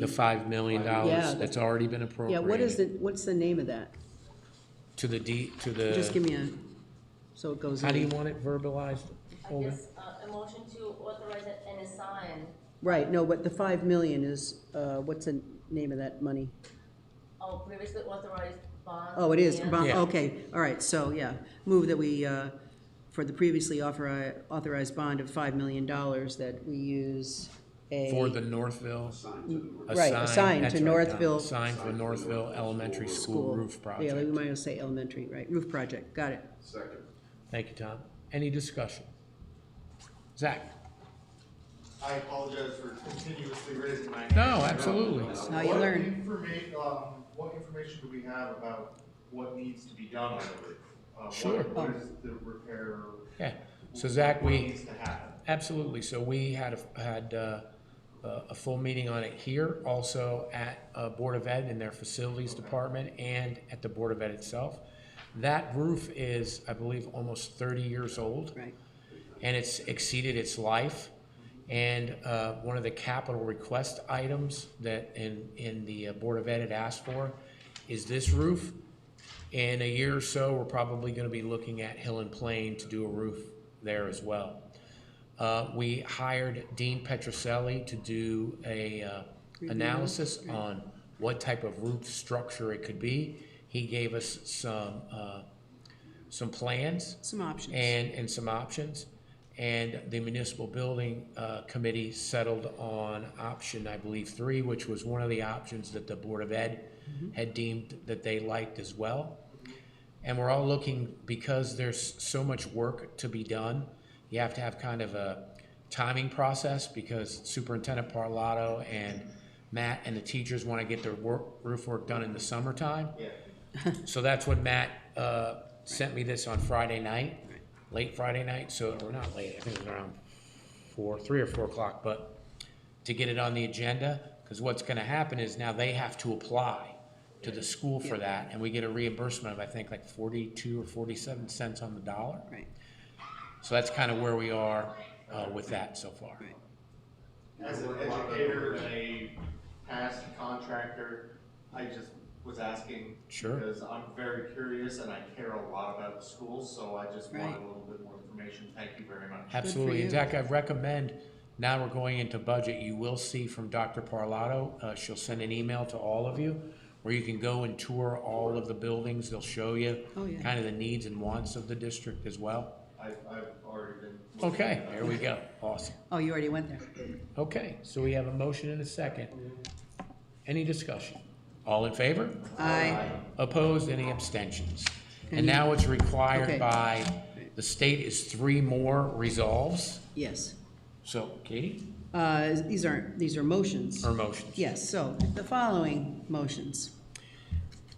The five million Yeah. dollars that's already been Yeah, appropriated. what is the, what's the name of that? To the D, to Just the, give me a, so it goes how do you in. want it verbalized? I Holden? guess, uh, a motion to authorize it and assign, Right, no, but the five million is, uh, what's the name of that money? oh, previously authorized bonds. Oh, it is, and- bond- Yeah. okay, all right, so, yeah, move that we, uh, for the previously authori- authorized bond of five million dollars, that we use a. For the Northville? Right, assigned that's right, Don. to Northville- Assigned for Northville Elementary School roof Yeah, we project. might as well say elementary, right, roof project, got it. Second. Thank you, Tom. Any discussion? Zach? I apologize for continuously raising my hand. No, absolutely. How you learn. What informa- um, what information do we have about what needs to be done on the roof? Uh, what- Sure. What is the repair? Yeah, so Zach, What we, needs to happen? absolutely, so we had, a- had uh, a a full meeting on it here, also at uh, Board of Ed in their Facilities Department and at the Board of Ed itself. That roof is, I believe, almost 30 years old. Right. and it's exceeded its life. And uh, one of the capital request items that in, in the uh, Board of Ed had asked for is this roof. In a year or so, we're probably gonna be looking at Hill and Plain to do a roof there as well. Uh, We hired Dean Petroselli to do a uh, analysis on what type of roof structure it could be. He gave us some, uh, some plans. Some options. And, and some options. And the municipal building uh, committee settled on option, I believe, three, which was one of the options that the Board of Ed had deemed that they liked as well. And we're all looking, because there's so much work to be done, you have to have kind of a timing process because Superintendent Parlato and Matt and the teachers want to get their work, roof work done in the summertime. So that's when Matt uh, sent me this on Friday night, late Friday night, so, or not late, I think it was around four, three or four o'clock, but to get it on the agenda, because what's gonna happen is now they have to apply to the school for that, and we get a reimbursement of, I think, like forty-two or forty-seven cents on the dollar. Right, So that's kind of where we are uh, with that so far. right. As an educator and a past contractor, I just was asking. Sure. Because I'm very curious and I care a lot about the schools, so I just wanted Right. a little bit more information. Thank you very much. Absolutely. you. And Zach, I recommend, now we're going into budget, you will see from Dr. Parlato, uh, she'll send an email to all of you where you can go and tour all of the buildings. They'll show you Oh, yeah. kind of the needs and wants of the district as well. I've, I've already been. looking Okay, at that. there we go. Awesome. Oh, you already went there. Okay, so we have a motion and a second. Any discussion? All in favor? Aye. Opposed, any abstentions? And Any- now it's Okay. required by, the state is three more resolves. Yes. So Katie, Uh, These aren't, these are motions. or motions? Yes, so the following motions.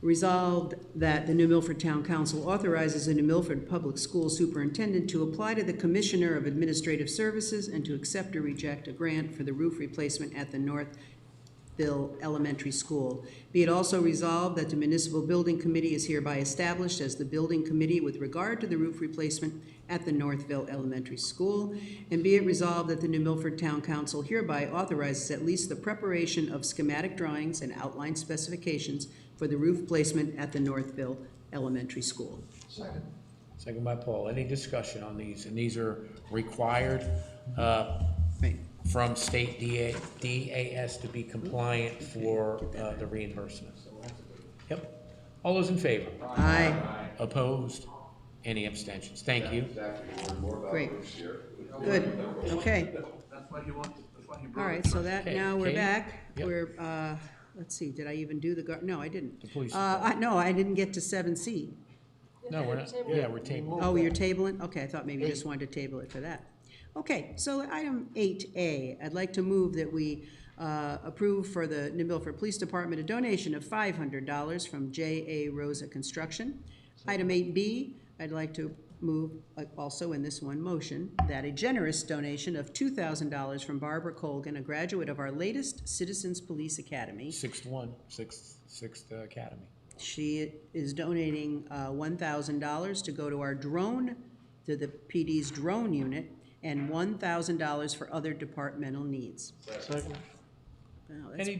Resolved that the New Milford Town Council authorizes the New Milford Public School Superintendent to apply to the Commissioner of Administrative Services and to accept or reject a grant for the roof replacement at the Northville Elementary School. Be it also resolved that the Municipal Building Committee is hereby established as the Building Committee with regard to the roof replacement at the Northville Elementary School. And be it resolved that the New Milford Town Council hereby authorizes at least the preparation of schematic drawings and outline specifications for the roof placement at the Northville Elementary School. Second by Paul. Any discussion on these? And these are required uh, Right, from state DA DAS to be compliant for uh, the reimbursement. Yep. All those in favor? aye, Opposed? Any abstentions? Thank you. Exactly, we'll learn more about Great. this year. good, okay. That's why he wants, that's why he All brought it. right, so that, Okay, now we're Katie? back. Yep. We're, uh, let's see, did I even do the, gar- no, I didn't. The police Uh, I- No, I didn't get to seven C. No, we're not, yeah, we're tabled. Oh, you're tabling? Okay, I thought maybe you just wanted to table it for that. Okay, so item eight A, I'd like to move that we uh, approve for the New Milford Police Department a donation of five hundred dollars from J A Rosa Construction. Item eight B, I'd like to move, uh, also in this one motion, that a generous donation of two thousand dollars from Barbara Colgan, a graduate of our latest Citizens Police Academy, Sixth one, sixth, sixth uh, academy. she is donating uh, one thousand dollars to go to our drone, to the PD's drone unit, and one thousand dollars for other departmental needs. Wow, that's Any